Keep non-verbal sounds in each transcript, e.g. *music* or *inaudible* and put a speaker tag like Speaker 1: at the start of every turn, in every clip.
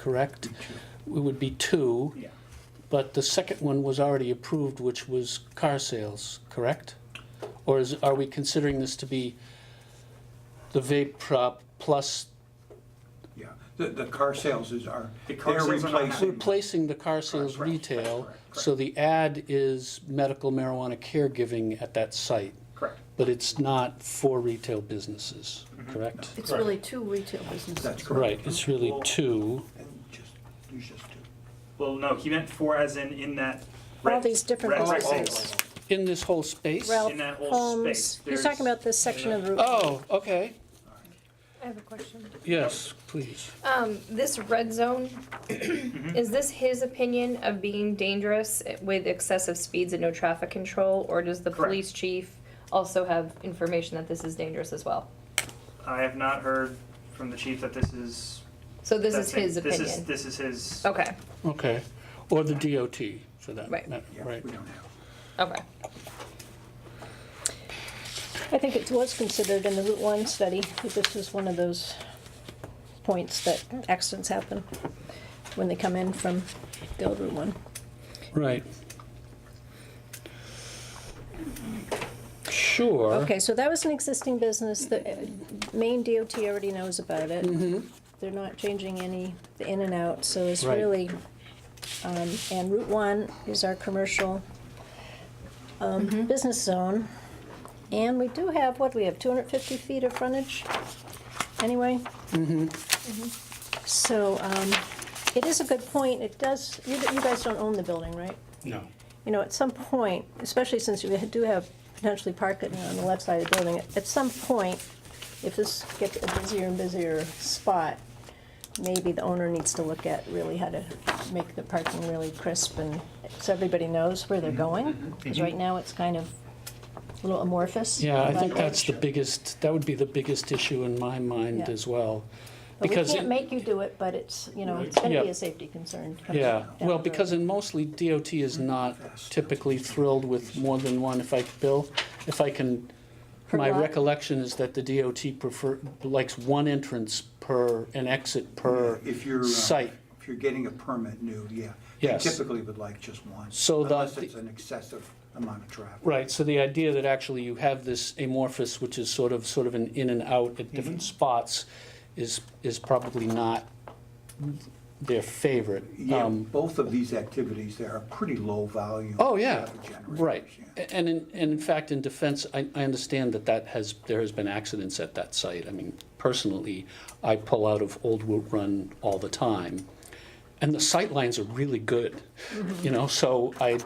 Speaker 1: correct? It would be two,
Speaker 2: Yeah.
Speaker 1: but the second one was already approved, which was car sales, correct? Or is, are we considering this to be the vape prop plus
Speaker 2: Yeah, the, the car sales is are,
Speaker 3: The
Speaker 2: they're
Speaker 3: car sales are not
Speaker 2: replacing.
Speaker 1: replacing the car sales
Speaker 2: Correct, correct,
Speaker 1: retail?
Speaker 2: correct, correct.
Speaker 1: So the ad is medical marijuana caregiving at that site,
Speaker 3: Correct.
Speaker 1: but it's not for retail businesses, correct?
Speaker 4: It's really two retail businesses.
Speaker 2: That's Mm-hmm. correct.
Speaker 1: Right, it's really two.
Speaker 2: And just, there's just two.
Speaker 3: Well, no, he meant four as in in that.
Speaker 5: All
Speaker 3: red-
Speaker 5: these different
Speaker 3: red
Speaker 5: places.
Speaker 3: rectangle.
Speaker 1: In this whole space?
Speaker 5: Ralph
Speaker 3: In that whole space,
Speaker 5: Holmes, he's
Speaker 3: there's-
Speaker 5: talking about this section of Route.
Speaker 1: Oh, okay.
Speaker 6: I have a question.
Speaker 1: Yes, please.
Speaker 6: Um, this red zone,
Speaker 3: Mm-hmm.
Speaker 6: is this his opinion of being dangerous with excessive speeds and no traffic control? Or does the
Speaker 3: Correct.
Speaker 6: police chief also have information that this is dangerous as well?
Speaker 3: I have not heard from the chief that this is.
Speaker 6: So this is
Speaker 3: that's it.
Speaker 6: his
Speaker 3: This is-
Speaker 6: opinion?
Speaker 3: This is his.
Speaker 6: Okay,
Speaker 1: Okay. Or the DOT, for that
Speaker 6: Right.
Speaker 1: matter,
Speaker 2: Yeah,
Speaker 1: right?
Speaker 2: we don't have.
Speaker 6: okay.
Speaker 5: I think it was considered in the Route One study, that this was one of those points that accidents happen when they come in from the old Route One.
Speaker 1: Right. Sure.
Speaker 5: Okay, so that was an existing business, the uh, Maine DOT already knows about it.
Speaker 1: Mm-hmm.
Speaker 5: They're not changing any, the in and out, so it's
Speaker 1: Right.
Speaker 5: really, um, and Route One is our commercial, um, business zone. And we do have, what, we have two hundred fifty feet of frontage, anyway? So, um, it is a good point, it does, you, you guys don't own the building, right?
Speaker 7: No.
Speaker 5: you know, at some point, especially since we do have potentially parking on the left side of the building, at some point, if this gets a busier and busier spot, maybe the owner needs to look at really how to make the parking really crisp and so everybody knows where they're going. Because right now, it's kind of a little amorphous.
Speaker 1: Yeah, I
Speaker 5: but-
Speaker 1: think that's the biggest, that would be the biggest issue in my mind
Speaker 5: Yeah.
Speaker 1: as well.
Speaker 5: But we
Speaker 1: because it-
Speaker 5: can't make you do it, but it's, you know, it's gonna be
Speaker 1: Yeah.
Speaker 5: a safety concern.
Speaker 1: Yeah,
Speaker 5: down
Speaker 1: well,
Speaker 5: the
Speaker 1: because
Speaker 5: road.
Speaker 1: in mostly DOT is not typically thrilled with more than one, if I, Bill, if I can,
Speaker 5: Per
Speaker 1: my
Speaker 5: lot?
Speaker 1: recollection is that the DOT prefer, likes one entrance per, an exit per
Speaker 2: If you're, uh,
Speaker 1: site.
Speaker 2: if you're getting a permit new, yeah. they
Speaker 1: Yes.
Speaker 2: Typically would like just one.
Speaker 1: So the-
Speaker 2: Unless it's an excessive amount of traffic.
Speaker 1: Right, so the idea that actually you have this amorphous, which is sort of, sort of an in and out at different spots, is, is probably not their favorite.
Speaker 2: Yeah,
Speaker 1: Um,
Speaker 2: both of these activities, there are pretty low volume.
Speaker 1: Oh, yeah,
Speaker 2: traffic generators,
Speaker 1: right.
Speaker 2: yeah.
Speaker 1: A- And in, and in fact, in defense, I, I understand that that has, there has been accidents at that site. I mean, personally, I pull out of Old Wood Run all the time, and the sight lines are really good, you know, so I,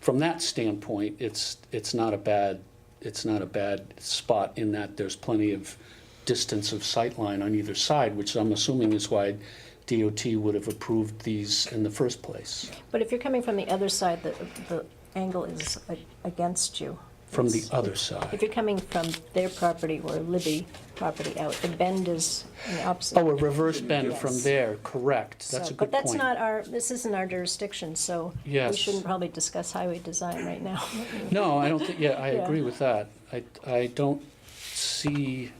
Speaker 1: from that standpoint, it's, it's not a bad, it's not a bad spot in that there's plenty of distance of sight line on either side, which I'm assuming is why DOT would have approved these in the first place.
Speaker 5: But if you're coming from the other side, the, the angle is a- against you.
Speaker 1: from the
Speaker 5: It's-
Speaker 1: other
Speaker 5: If
Speaker 1: side.
Speaker 5: you're coming from their property or Libby property out, the bend is in the opposite.
Speaker 1: Oh, a reverse bend from
Speaker 5: Yes.
Speaker 1: there, correct, that's
Speaker 5: So-
Speaker 1: a good
Speaker 5: But that's
Speaker 1: point.
Speaker 5: not our, this isn't our jurisdiction, so we
Speaker 1: Yes.
Speaker 5: shouldn't probably discuss highway design right now.
Speaker 1: No,
Speaker 5: *laughs*
Speaker 1: I don't think, yeah, I
Speaker 5: Yeah.
Speaker 1: agree with that. I, I don't see,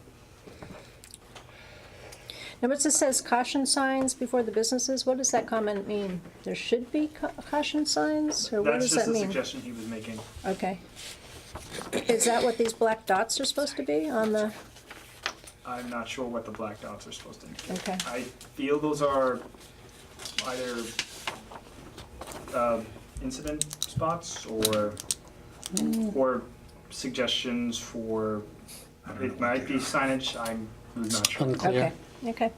Speaker 5: Now, it just says caution signs before the businesses, what does that comment mean? There should be ca- caution signs, or what
Speaker 3: That's
Speaker 5: does
Speaker 3: just
Speaker 5: that
Speaker 3: a
Speaker 5: mean?
Speaker 3: suggestion he was making.
Speaker 5: Okay. Is that what these black dots are supposed to be on the,
Speaker 3: I'm not sure what the black dots are supposed to indicate.
Speaker 5: okay,
Speaker 3: I feel those are either uh, incident spots or
Speaker 5: Mm.
Speaker 3: or suggestions for. It might be signage. I'm not sure.
Speaker 1: unclear,
Speaker 5: okay, okay.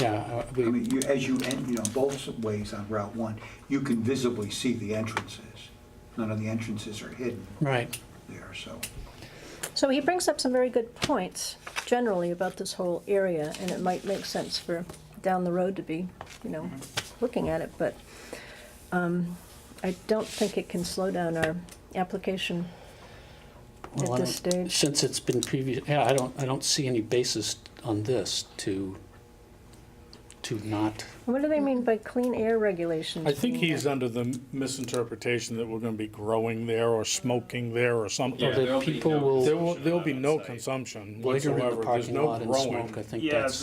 Speaker 1: yeah, uh,
Speaker 2: I
Speaker 1: we,
Speaker 2: mean, you, as you, en- you know, both ways on Route 1, you can visibly see the entrances. None of the entrances are hidden
Speaker 1: right,
Speaker 2: there, so.
Speaker 5: So he brings up some very good points generally about this whole area, and it might make sense for down the road to be, you know,
Speaker 7: Mm-hmm.
Speaker 5: looking at it, but um, I don't think it can slow down our application
Speaker 1: Well,
Speaker 5: at
Speaker 1: I
Speaker 5: this
Speaker 1: don't-
Speaker 5: stage.
Speaker 1: since it's been previous, yeah, I don't, I don't see any basis on this to, to not,
Speaker 5: What do they mean by clean air regulations?
Speaker 7: I think
Speaker 5: being-
Speaker 7: he's under the misinterpretation that we're gonna be growing there or smoking there or
Speaker 1: or
Speaker 7: something.
Speaker 1: that people
Speaker 7: There
Speaker 1: will
Speaker 7: will, there'll be
Speaker 8: on
Speaker 7: no
Speaker 8: that site.
Speaker 7: consumption
Speaker 1: loiter in the
Speaker 7: whatsoever. There's
Speaker 1: parking
Speaker 7: no
Speaker 1: lot and smoke, I
Speaker 7: growing.
Speaker 1: think
Speaker 3: Yeah,
Speaker 1: that's.